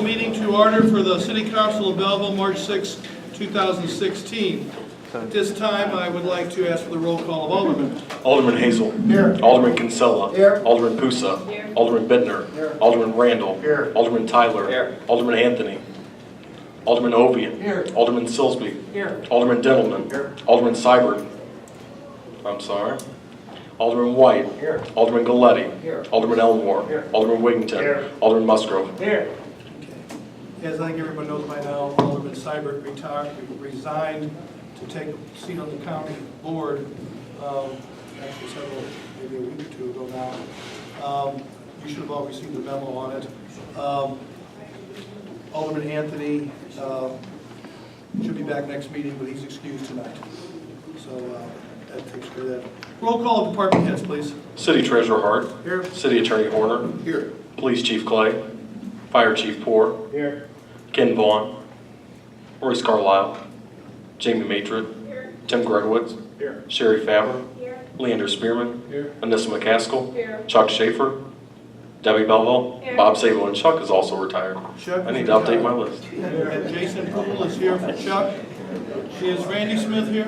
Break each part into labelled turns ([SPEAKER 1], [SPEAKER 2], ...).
[SPEAKER 1] order for the City Council of Belleville, March 6, 2016. At this time, I would like to ask for the roll call of Alderman.
[SPEAKER 2] Alderman Hazel.
[SPEAKER 3] Here.
[SPEAKER 2] Alderman Kinsella.
[SPEAKER 3] Here.
[SPEAKER 2] Alderman Pusa. Alderman Bittner.
[SPEAKER 3] Here.
[SPEAKER 2] Alderman Randall.
[SPEAKER 3] Here.
[SPEAKER 2] Alderman Tyler.
[SPEAKER 3] Here.
[SPEAKER 2] Alderman Anthony. Alderman Ovian.
[SPEAKER 3] Here.
[SPEAKER 2] Alderman Silsby.
[SPEAKER 3] Here.
[SPEAKER 2] Alderman Dendelman.
[SPEAKER 3] Here.
[SPEAKER 2] Alderman Seibert. I'm sorry. Alderman White.
[SPEAKER 3] Here.
[SPEAKER 2] Alderman Galetti.
[SPEAKER 3] Here.
[SPEAKER 2] Alderman Elmore.
[SPEAKER 3] Here.
[SPEAKER 2] Alderman Wiggington.
[SPEAKER 3] Here.
[SPEAKER 2] Alderman Musgrove.
[SPEAKER 3] Here.
[SPEAKER 1] As I think everyone knows by now, Alderman Seibert retired, resigned to take a seat on the county board, um, actually several, maybe a week or two ago now. Um, You should have all received the memo on it. Um, Alderman Anthony uh, should be back next meeting, but he's excused tonight. So uh, that takes care of that. Roll call of department heads, please.
[SPEAKER 2] City Treasurer Hart.
[SPEAKER 1] Here.
[SPEAKER 2] City Attorney Horner.
[SPEAKER 1] Here.
[SPEAKER 2] Police Chief Clay. Fire Chief Poor.
[SPEAKER 3] Here.
[SPEAKER 2] Ken Vaughn, Royce Carlisle, Jamie Matrit, Tim Gregowitz,
[SPEAKER 3] Here.
[SPEAKER 2] Sherry Faber,
[SPEAKER 4] Here,
[SPEAKER 2] Leander Spearman,
[SPEAKER 3] Here.
[SPEAKER 2] Anissa McCaskill,
[SPEAKER 4] here,
[SPEAKER 2] Chuck Schaefer, Debbie Belleville,
[SPEAKER 4] Here.
[SPEAKER 2] Bob Sable, and Chuck is also retired.
[SPEAKER 1] Chuck
[SPEAKER 2] I
[SPEAKER 1] is
[SPEAKER 2] need to update
[SPEAKER 1] retired.
[SPEAKER 2] my list.
[SPEAKER 1] And Jason Poole is here for Chuck. Is Randy Smith here?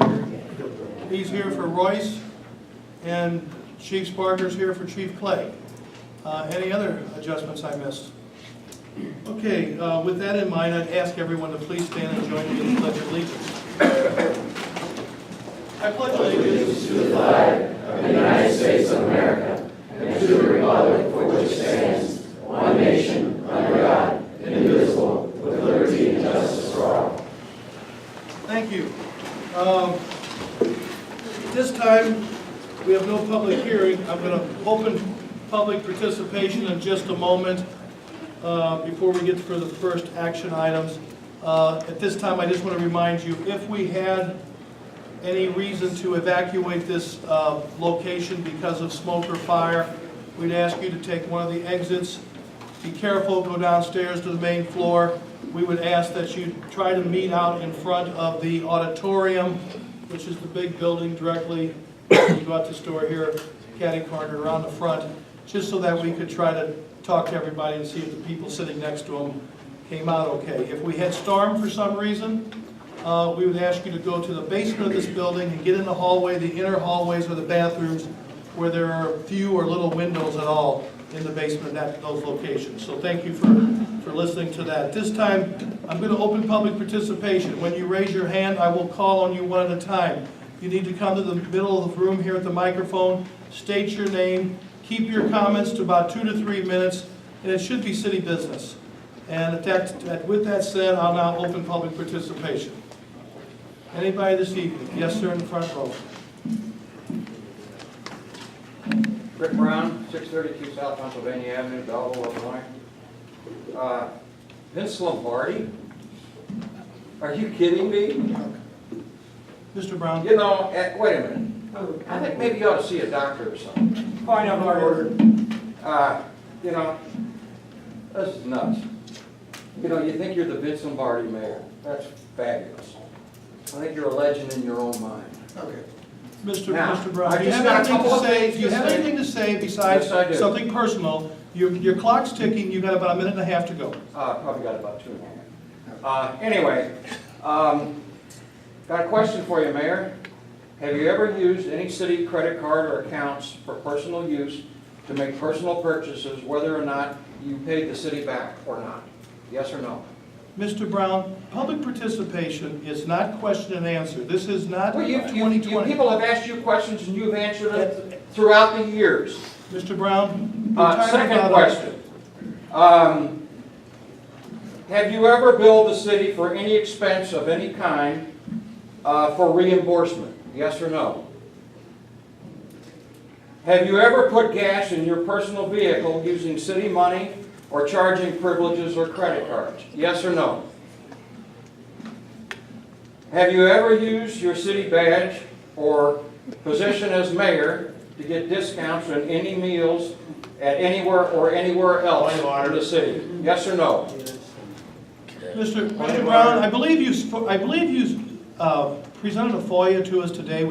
[SPEAKER 1] He's here for Royce. And Chief Sparker's here for Chief Clay. Uh, Any other adjustments I missed? Okay, uh, with that in mind, I'd ask everyone to please stand and join me in the pledge of allegiance. I pledge allegiance to the Thank you. Um, This time, we have no public hearing. I'm going to open public participation in just a moment uh, before we get to the first action items. Uh, At this time, I just want to remind you, if we had any reason to evacuate this uh, location because of smoke or fire, we'd ask you to take one of the exits. Be careful, go downstairs to the main floor. We would ask that you try to meet out in front of the auditorium, which is the big building directly, you go out this door here, catty corner around the front, just so that we could try to talk to everybody and see if the people sitting next to them came out okay. If we had storm for some reason, uh, we would ask you to go to the basement of this building and get in the hallway, the inner hallways or the bathrooms where there are few or little windows at all in the basement at those locations. So thank you for, for listening to that. This time, I'm going to open public participation. When you raise your hand, I will call on you one at a time. You need to come to the middle of the room here at the microphone, state your name, keep your comments to about two to three minutes, and it should be city business. And at that- that- with that said, I'll now open public participation. Anybody this evening? Yes, sir, in the front row.
[SPEAKER 5] Rick Brown, 632 South Pennsylvania Avenue, Belleville, Illinois. Uh, Vince Lombardi? Are you kidding me?
[SPEAKER 1] Mr. Brown?
[SPEAKER 5] You know, eh, wait a minute. I think maybe you ought to see a doctor or something.
[SPEAKER 1] Point of order.
[SPEAKER 5] Uh, You know, this is nuts. You know, you think you're the Vince Lombardi mayor. That's fabulous. I think you're a legend in your own mind.
[SPEAKER 3] Okay.
[SPEAKER 1] Mr.
[SPEAKER 5] Now,
[SPEAKER 1] Mr. Brown,
[SPEAKER 5] I
[SPEAKER 1] do you
[SPEAKER 5] just
[SPEAKER 1] have
[SPEAKER 5] got a
[SPEAKER 1] anything
[SPEAKER 5] couple
[SPEAKER 1] to
[SPEAKER 5] of
[SPEAKER 1] say,
[SPEAKER 5] things
[SPEAKER 1] do you
[SPEAKER 5] to
[SPEAKER 1] have
[SPEAKER 5] say.
[SPEAKER 1] anything to say besides
[SPEAKER 5] Yes, I do.
[SPEAKER 1] something personal? Your, your clock's ticking, you've got about a minute and a half to go.
[SPEAKER 5] Uh, probably got about two more. Uh, anyway, um, got a question for you, Mayor. Have you ever used any city credit card or accounts for personal use to make personal purchases, whether or not you paid the city back or not? Yes or no?
[SPEAKER 1] Mr. Brown, public participation is not question and answer. This is not
[SPEAKER 5] Well, you, you, you
[SPEAKER 1] 2020.
[SPEAKER 5] people have asked you questions and you've answered it throughout the years.
[SPEAKER 1] Mr. Brown?
[SPEAKER 5] Uh,
[SPEAKER 1] you're tired
[SPEAKER 5] Second
[SPEAKER 1] about-
[SPEAKER 5] question. Um, Have you ever billed the city for any expense of any kind uh, for reimbursement? Yes or no? Have you ever put gas in your personal vehicle using city money or charging privileges or credit cards? Yes or no? Have you ever used your city badge or position as mayor to get discounts on any meals at anywhere or anywhere else in the city? Yes or no?
[SPEAKER 1] Mr. Mr. Brown, I believe you, sp- I believe you uh, presented a FOIA to us today